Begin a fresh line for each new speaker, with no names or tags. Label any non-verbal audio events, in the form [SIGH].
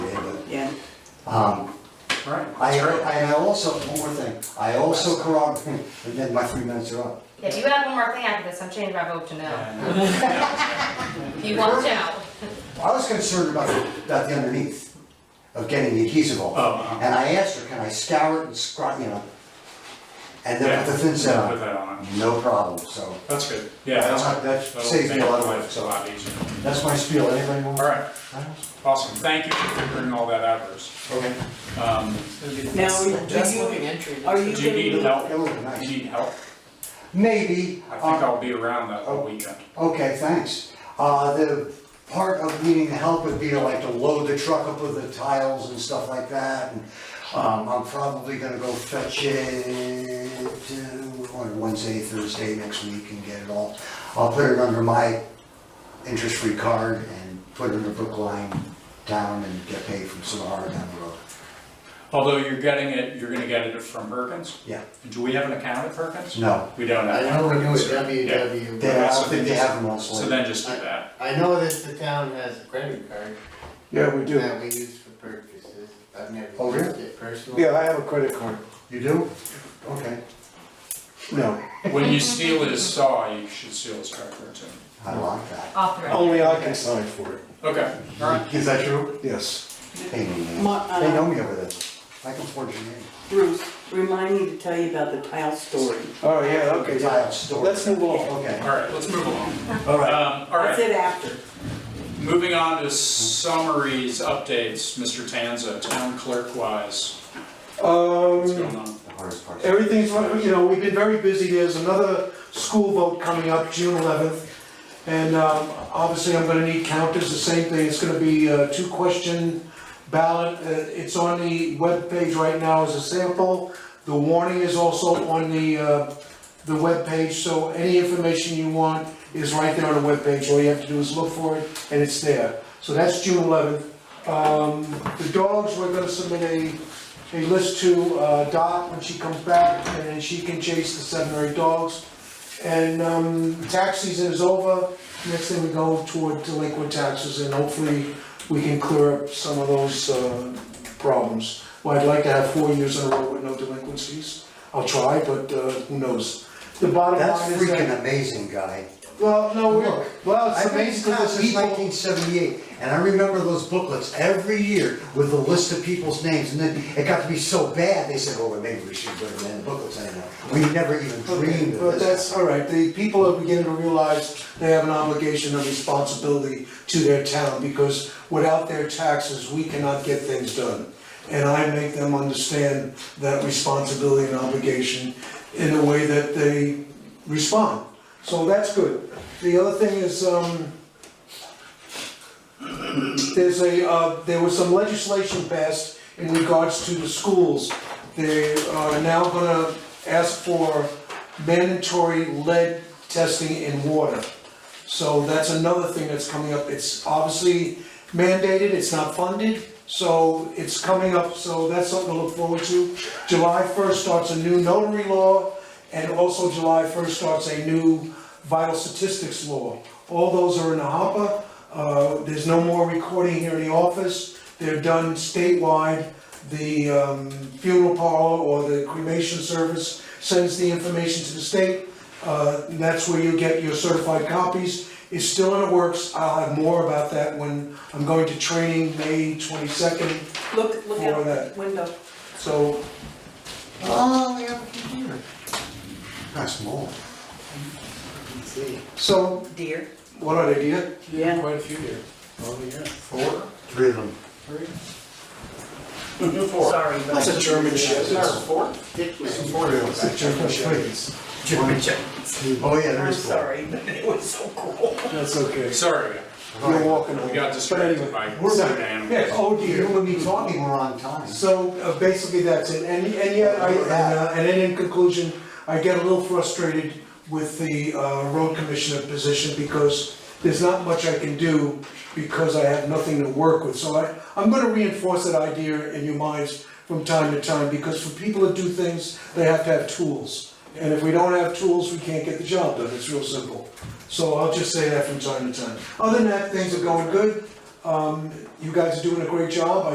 Um,
All right.
I, and I also, one more thing, I also corroborate, [LAUGHS] and then my three minutes are up.
If you have one more thing after this, I'm changing my vote to no.
And,
You want no.
I was concerned about, about the underneath, of getting the adhesive
oh,
off.
uh,
And I asked her, can I scour it and scrub, you know? And then
yeah,
put the thin set
Put
on,
that on.
no problem, so.
That's good. Yeah, that's good.
That
That'll
saves me a
make
lot of
life
work,
A
so.
lot easier.
That's my spiel, anybody want?
All right, awesome. Thank you for figuring all that out, Bruce.
Okay.
Um,
Now, do
Just
you-
looking entry.
Are
do
you
you
gonna
need
move,
help?
It would be
You
nice.
need help?
Maybe,
I think
uh,
I'll be around that whole weekend.
Okay, thanks. Uh, the part of needing the help would be to like to load the truck up with the tiles and stuff like that. And Um, I'm probably gonna go fetch it uh, on Wednesday, Thursday next week and get it all. I'll put it under my interest-free card and put it under Brookline Town and get paid from Sonora down the road.
Although you're getting it, you're gonna get it from Perkins?
Yeah.
Do we have an account at Perkins?
No,
We don't
I
have.
know
one.
we do it
Yeah.
WW,
they, I
but
don't think they have them on
So
Slate.
then just do that.
I know that the town has a credit card
Yeah, we do.
that we use for purchases. I've never
Oh, really?
used it personally.
Yeah, I have a credit card.
You do? Okay.
No,
When you steal his saw, you should steal his tractor too.
I like that.
Off the record.
only I can sign for it.
Okay, all right.
Is that true?
Yes.
Hey, man.
Ma- uh,
They know me over there. I can forge your name.
Bruce, remind me to tell you about the tile story.
Oh, yeah,
Okay,
okay.
I
yeah.
have story.
Let's move on.
Okay,
All right, let's move along.
all right.
Um, all
That's
right,
it after.
moving on to summaries, updates, Mr. Tanza, town clerk wise, what's
Um,
going on?
The hardest part.
everything's, you know, we've been very busy. There's another school vote coming up, June eleventh. And, um, obviously I'm gonna need counters, the same thing. It's gonna be a two-question ballot. Uh, It's on the webpage right now as a sample. The warning is also on the, uh, the webpage, so any information you want is right there on the webpage. All you have to do is look for it, and it's there. So that's June eleventh. Um, the dogs, we're gonna submit a, a list to, uh, Dot when she comes back, and then she can chase the seven or eight dogs. And, um, tax season is over, next thing we go toward delinquent taxes, and hopefully we can clear up some of those, uh, problems. Well, I'd like to have four years in a row with no delinquencies, I'll try, but, uh, who knows? The bottom
That's
line is that,
freaking amazing, guy.
well, no,
Look,
we're, well, it's
I've been in
amazing
town
because
since
people.
nineteen seventy-eight, and I remember those booklets every year with a list of people's names, and then it got to be so bad, they said, well, maybe we should put them in the booklets anymore. We never even dreamed of
But that's,
this.
all right, the people are beginning to realize they have an obligation and responsibility to their town, because without their taxes, we cannot get things done. And I make them understand that responsibility and obligation in a way that they respond. So that's good. The other thing is, um, there's a, uh, there was some legislation passed in regards to the schools. They are now gonna ask for mandatory lead testing in water. So that's another thing that's coming up. It's obviously mandated, it's not funded, so it's coming up, so that's something to look forward to. July first starts a new notary law, and also July first starts a new vital statistics law. All those are in the hopper. Uh, there's no more recording here in the office. They're done statewide. The um, funeral parlor or the cremation service sends the information to the state. Uh, and That's where you get your certified copies. It's still in the works. I'll have more about that when I'm going to training May 22nd.
Look, look
For
out the
that.
window.
So,
Oh, they have a computer. Not small.
so
Deer.
what an idea.
Yeah.
Quite a few here.
Oh, yeah.
Four?
Three of them.
Four.
Sorry. but-
That's a German
Is
Shepherd.
there a four? Some
Dickman.
four
It's a German Shepherd.
Oh, yeah, there
I'm
is four.
sorry, but it was so cool.
That's okay.
Sorry,
You're walking
we
over.
got distracted by seven
Yeah,
animals.
oh
You
dear.
and me talking, we're on time.
So uh, basically, that's it. And, and yeah, I, and, uh, and then in conclusion, I get a little frustrated with the, uh, road commissioner position because there's not much I can do because I have nothing to work with. So I, I'm gonna reinforce that idea in your minds from time to time because for people to do things, they have to have tools. And if we don't have tools, we can't get the job done. It's real simple. So I'll just say that from time to time. Other than that, things are going good. Um, you guys are doing a great job. I